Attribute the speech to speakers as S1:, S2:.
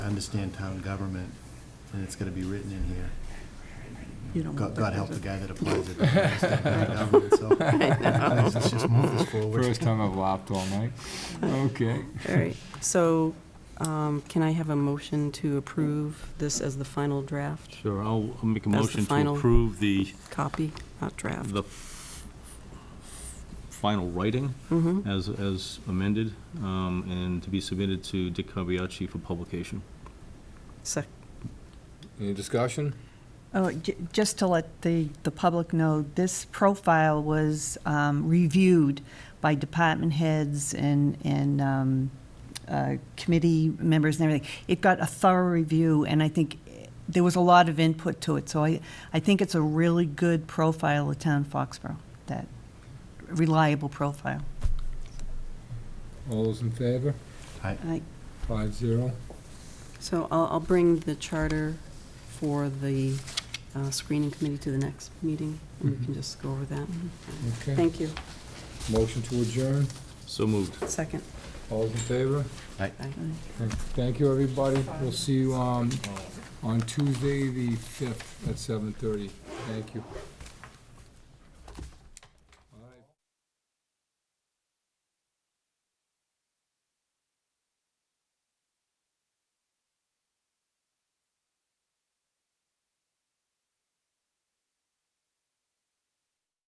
S1: understand town government, and it's gotta be written in here.
S2: You don't
S1: God,
S2: want
S1: God
S2: that,
S1: help
S2: does
S1: the
S2: it?
S1: guy that applies it. doesn't understand town government, so Let's just move this forward.
S3: First time I've laughed all night. Okay.
S2: All right,
S4: So um, can I have a motion to approve this as the final draft
S5: Sure, I'll I'll make a
S4: That's the
S5: motion to
S4: final-
S5: approve the,
S4: copy, not draft?
S5: the f- final writing
S4: Mhm.
S5: as, as amended, um, and to be submitted to Dick Carbiachi for publication.
S4: Sec-
S3: Any discussion?
S2: Oh, j- just to let the, the public know, this profile was um, reviewed by department heads and, and um, uh, committee members and everything. It got a thorough review, and I think eh, there was a lot of input to it. So I, I think it's a really good profile of town Foxborough, that reliable profile.
S3: All those in favor?
S1: I-
S2: I-
S3: Five zero.
S4: So I'll, I'll bring the charter for the uh, screening committee to the next meeting, and
S2: Mm-hmm.
S4: we can just go over that.
S3: Okay.
S4: Thank you.
S3: Motion to adjourn.
S5: So moved.
S4: Second.
S3: All those in favor?
S4: Aye.
S3: Thank you, everybody. We'll um, see you on, on Tuesday, the fifth, at seven thirty. Thank you.